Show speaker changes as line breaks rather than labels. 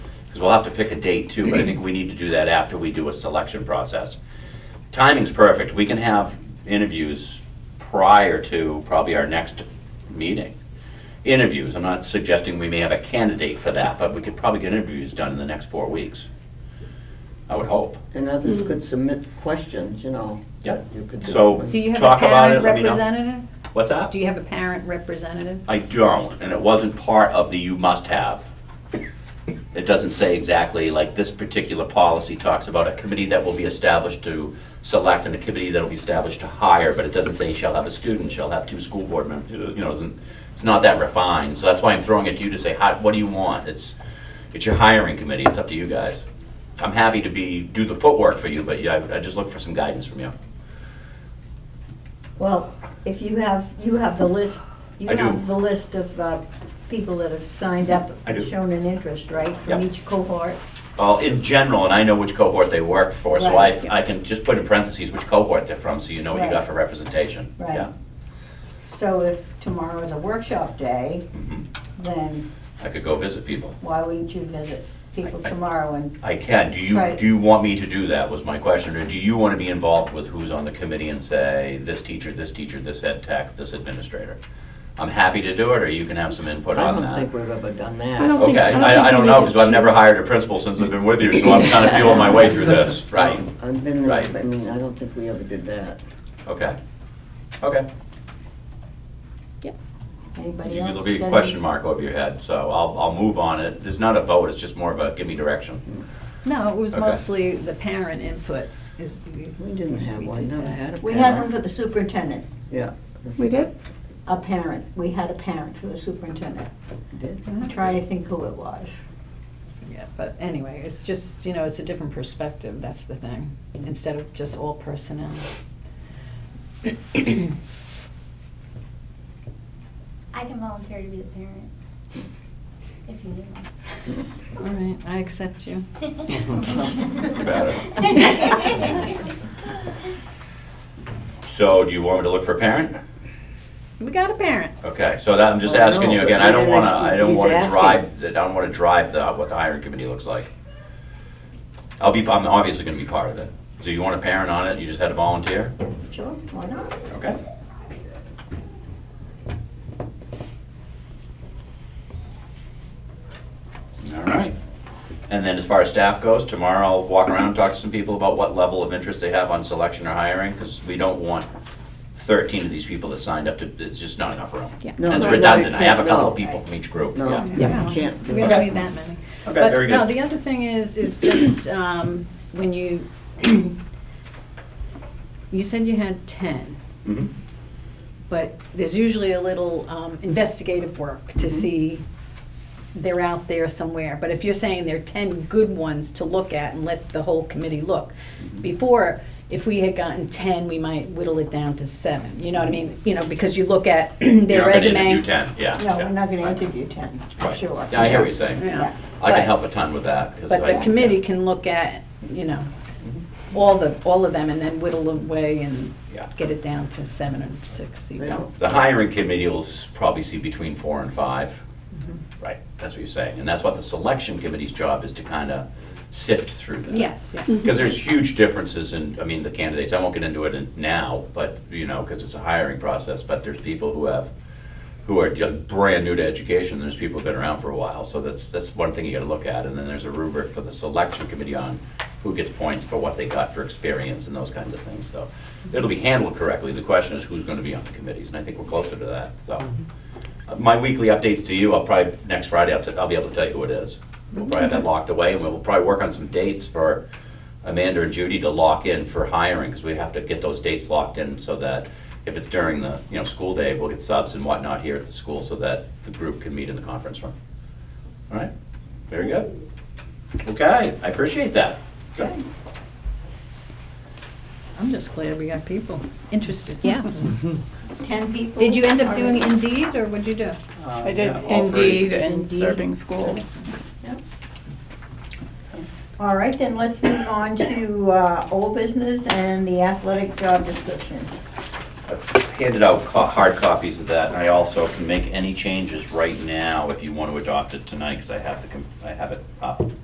because we'll have to pick a date too, but I think we need to do that after we do a selection process. Timing's perfect, we can have interviews prior to probably our next meeting. Interviews, I'm not suggesting we may have a candidate for that, but we could probably get interviews done in the next four weeks. I would hope.
And
Hmm.
others could submit questions, you know.
Yeah.
that you could do.
So-
Do you have a
Talk about it,
parent
let me know.
representative?
What's that?
Do you have a parent representative?
I don't, and it wasn't part of the you must have. It doesn't say exactly, like, this particular policy talks about a committee that will be established to select and a committee that will be established to hire, but it doesn't say shall have a student, shall have two school board members, you know, it isn't, it's not that refined, so that's why I'm throwing it to you to say, how, what do you want? It's, it's your hiring committee, it's up to you guys. I'm happy to be, do the footwork for you, but yeah, I, I just look for some guidance from you.
Well, if you have, you have the list, you
I do.
have the list of uh, people that have signed up,
I do.
shown an interest, right? From
Yeah.
each cohort.
Well, in general, and I know which cohort they work for, so I,
Right.
I can just put in parentheses which cohort they're from, so you know what you got
Right.
for representation.
Right.
Yeah.
So if tomorrow is a workshop day,
Mm-hmm.
then
I could go visit people.
why wouldn't you visit people
I- I-
tomorrow and,
I can, do you,
Right.
do you want me to do that, was my question, or do you want to be involved with who's on the committee and say, this teacher, this teacher, this ed tech, this administrator? I'm happy to do it, or you can have some input
I
on
don't think
that.
we've ever done
I
that.
don't-
uh, Okay,
think- I think
I, I
we
don't
need
know,
to
because I've never
choose.
hired a principal since I've been with you, so I'm kind of feeling my way through this, right?
I've been, there,
Right.
I mean, I don't think we ever did that.
Okay, okay.
anybody else?
There'll be
got
a
any-
question mark over your head, so I'll, I'll move on it. It's not a vote, it's just more of a give me direction.
No, it was
Okay.
mostly the parent input is.
We didn't have
we
one,
did
never
that.
had a
We had one
parent.
for the superintendent,
Yeah.
We did?
a parent. We had a parent for the superintendent.
Did?
I'm trying to think who it was.
Yeah, but anyway, it's just, you know, it's a different perspective, that's the thing, instead of just all personnel.
I can volunteer to be the parent. If you need me.
All right, I accept you.
So do you want me to look for a parent?
We got a parent.
Okay, so that, I'm just
Well,
asking
no,
you
but
again, I don't
then
wanna,
that's-
I don't
he's
wanna
asking.
drive, the- I don't wanna drive the, what the hiring committee looks like. I'll be, I'm obviously gonna be part of it. So you want a parent on it, you just had to volunteer?
Sure, why not?
Okay. All right. And then as far as staff goes, tomorrow I'll walk around, and talk to some people about what level of interest they have on selection or hiring, because we don't want thirteen of these people that signed up to, it's just not enough room.
Yeah.
No,
And It's
no, no, you
redundant, I have a
can't,
couple of
no.
people from each group,
No.
yeah.
Yeah.
No,
Can't do
We
it.
don't need that many.
Okay, very
But,
good.
no, the other thing is, is just, um, when you, you said you had ten.
Mhm.
But there's usually a little um, investigative work
Mm-hmm.
to see they're out there somewhere. But if you're saying there are 10 good ones to look at and let the whole committee look.
Mm-hmm.
Before, if we had gotten 10, we might whittle it down to seven. You know what I mean? You know, because you look at
You're
their
not gonna
resume.
interview ten, yeah.
No,
yeah,
we're not gonna
right,
interview ten,
right.
sure.
Yeah, I hear what you're saying.
Yeah.
I
But-
can help a ton with that. 'cause
But the
I-
committee can look at, you know, all the, all of them and then whittle away and
Yeah.
get it down to seven or six. so you
They
don't-
don't-
The hiring committee will s- probably see between four and five. Right, that's what you're saying. And that's what the selection committee's job is to kind of sift through that.
Yes, yes.
Because there's huge differences in, I mean, the candidates, I won't get into it in- now, but, you know, because it's a hiring process, but there's people who have, who are ju- brand new to education, there's people who've been around for a while, so that's, that's one thing you gotta look at. And then there's a rubric for the selection committee on who gets points for what they got for experience and those kinds of things, so. It'll be handled correctly, the question is who's gonna be on the committees, and I think we're closer to that, so. Uh, My weekly updates to you, I'll probably, next Friday, I'll, t- I'll be able to tell you who it is. We'll probably have that locked away, and we'll probably work on some dates for Amanda and Judy to lock in for hiring, because we have to get those dates locked in so that if it's during the, you know, school day, we'll get subs and whatnot here at the school so that the group can meet in the conference room. All right, very good. Okay, I appreciate that. Good.
I'm just glad we got people interested.
Yeah.
Ten people.
Did you end up doing
already?
Indeed, or what'd you do?
I did
yeah, all three.
Indeed and
Indeed.
Serving Schools.
All right, then let's move on to uh, old business and the athletic job description.
handed out co- hard copies of that, and I also can make any changes right now if you want to adopt it tonight, because I have the, com- I have it up.